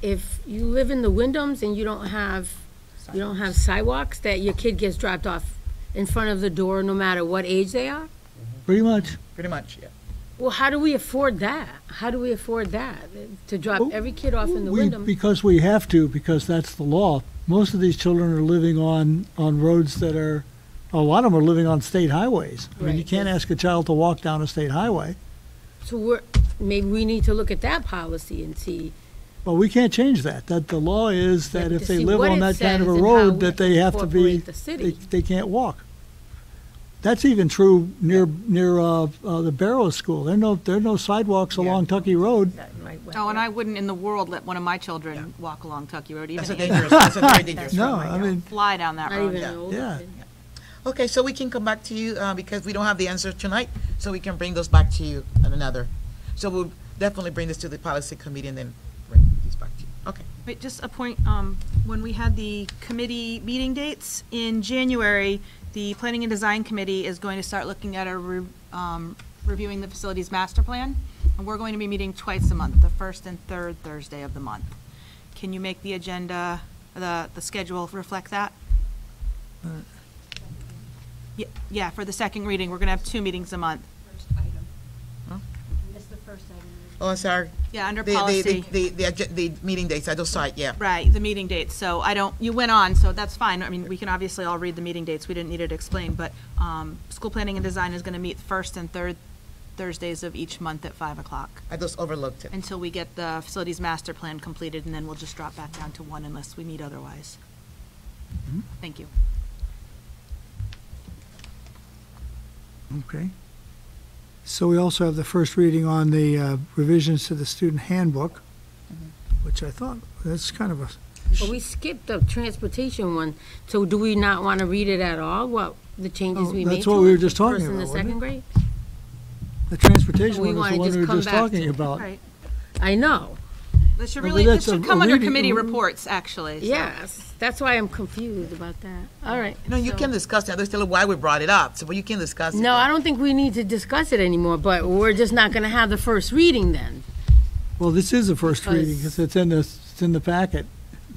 if you live in the Wyndhams and you don't have, you don't have sidewalks, that your kid gets dropped off in front of the door, no matter what age they are? Pretty much. Pretty much, yeah. Well, how do we afford that? How do we afford that? To drop Well, every kid off in the We- Wyndham? Because we have to, because that's the law. Most of these children are living on, on roads that are, a lot of them are living on state highways. I mean, you Right. can't ask a child to walk down a state highway. So we're, maybe we need to look at that policy and see. Well, we can't change that. That the law is Yeah, that but if to they see live what on it that kind of a says and how road, we that they have to be, incorporate the they, city. they can't walk. That's even true near, near, uh, uh, the Barrow School. There are no, there are no sidewalks Yeah. along Tucky Road. Oh, and I wouldn't in the world let one of my children walk along Tucky Road, even That's a if dangerous, that's a very dangerous No, road I right now. mean, fly down that Not road. even yeah, an older yeah. kid. Okay, so we can come back to you, uh, because we don't have the answer tonight, so we can bring those back to you at another. So we'll definitely bring this to the policy committee and then bring these back to you. Okay. Wait, just a point, um, when we had the committee meeting dates, in January, the Planning and Design Committee is going to start looking at a, re- um, reviewing the facilities master plan, and we're going to be meeting twice a month, the first and third Thursday of the month. Can you make the agenda, the, the schedule reflect that? Ye- Yeah, for the second reading, we're gonna have two meetings a month. first item. Huh? That's the first item. Oh, I'm sorry. Yeah, The, under policy. the, the, the, agen- the meeting dates, I just saw it, yeah. Right, the meeting dates, so I don't, you went on, so that's fine, I mean, we can obviously all read the meeting dates, we didn't need it explained, but, um, school planning and design is gonna meet first and third Thursdays of each month at five o'clock, I just overlooked it. until we get the facilities master plan completed, and then we'll just drop back down to one unless we meet otherwise. Mm-hmm. Thank you. Okay. So we also have the first reading on the uh, revisions to the student handbook, Mm-hmm. which I thought, that's kind of a, But we skipped the transportation one, so do we not want to read it at all, what, the changes Oh, we that's made to it? what we were the just talking first and the about, wasn't second it? grade? The transportation We one was wanna the one just we were come just back to talking it. about. Right, I know, that should But really, that that's a- should a come under reading- committee reports, actually, so. yes, that's why I'm confused about that, all right. No, you can discuss that. There's still why we brought it up, so, but you can discuss it. No, I don't think we need to discuss it anymore, but we're just not going to have the first reading then. Well, this is the first reading, Because- because it's in the, it's in the packet.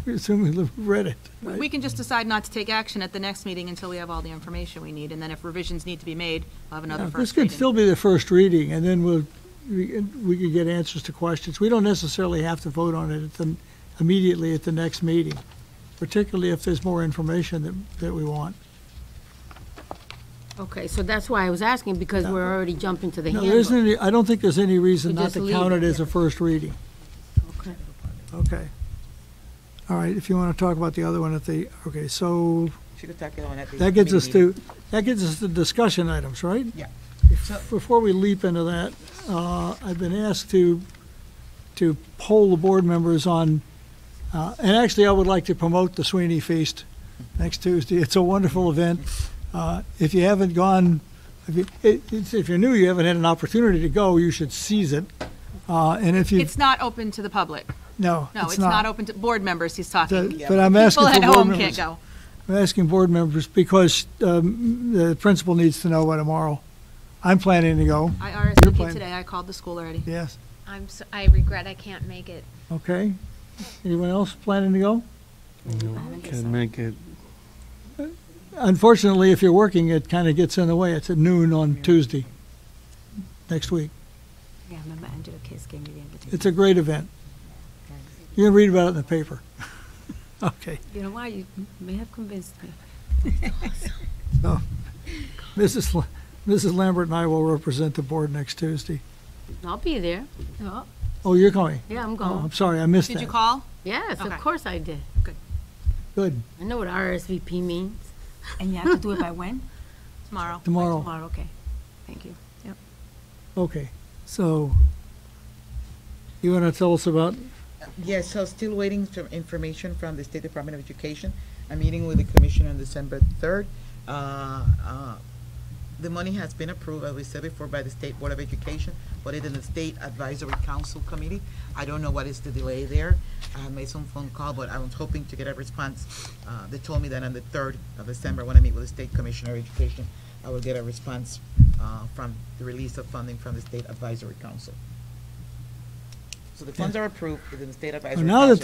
We assume we read it. We we can just decide not to take action at the next meeting until we have all the information we need, and then if revisions need to be made, we'll have another Now, first This reading. could still be the first reading, and then we'll, we we could get answers to questions. We don't necessarily have to vote on it at the, immediately at the next meeting, particularly if there's more information that, that we want. Okay, so that's why I was asking, because we're already jumping to the No, there isn't handbook. any, I don't think there's any reason We not just to leave count it, it as yeah. a first reading. Okay. Okay. All right, if you want to talk about the other one at the, okay, so She could tackle on at the that gets us committee meeting. to, that gets us to discussion items, right? Yeah. So- Before we leap into that, uh, I've been asked to, to poll the board members on, uh, and actually, I would like to promote the Sweeney Feast next Tuesday. It's a wonderful event. Uh, If you haven't gone, if you, it- it's- if you're new, you haven't had an opportunity to go, you should seize it. Uh, And if you, It's not open to the public. no, No, it's not open to board members, he's talking. That- But I'm asking for People board at members. home can't go. I'm asking board members because um, the principal needs to know by tomorrow. I'm planning to go, I You're RSVP'd playing. today, I called the school already. yes, I'm, so- I regret I can't make it. okay. Anyone else planning to go? Can make it, Unfortunately, if you're working, it kind of gets in the way. It's at noon on Tuesday, next week. Yeah, I remember Angela Case gave me the invitation. It's a great event. You're going to read about it in the paper. Okay. You know why? You may have convinced me. Oh. Mrs. La- Mrs. Lambert and I will represent the board next Tuesday. I'll be there. Oh, Oh, you're going? Yeah, I'm Oh, going. I'm sorry, I missed Did you that. call? Yes, of Okay. course I did. Good, I know what RSVP means. And you have to do it by when? Tomorrow. tomorrow. Tomorrow, okay. Thank you. Okay, so you want to tell us about Yes, so still waiting for information from the State Department of Education. I'm meeting with the commission on December 3rd. Uh, uh, The money has been approved, as we said before, by the State Board of Education, but it is the State Advisory Council Committee. I don't know what is the delay there. I made some phone call, but I was hoping to get a response. Uh, They told me that on the 3rd of December, when I meet with the State Commissioner of Education, I will get a response uh, from the release of funding from the State Advisory Council. So the funds are approved within the State Advisory Council. now that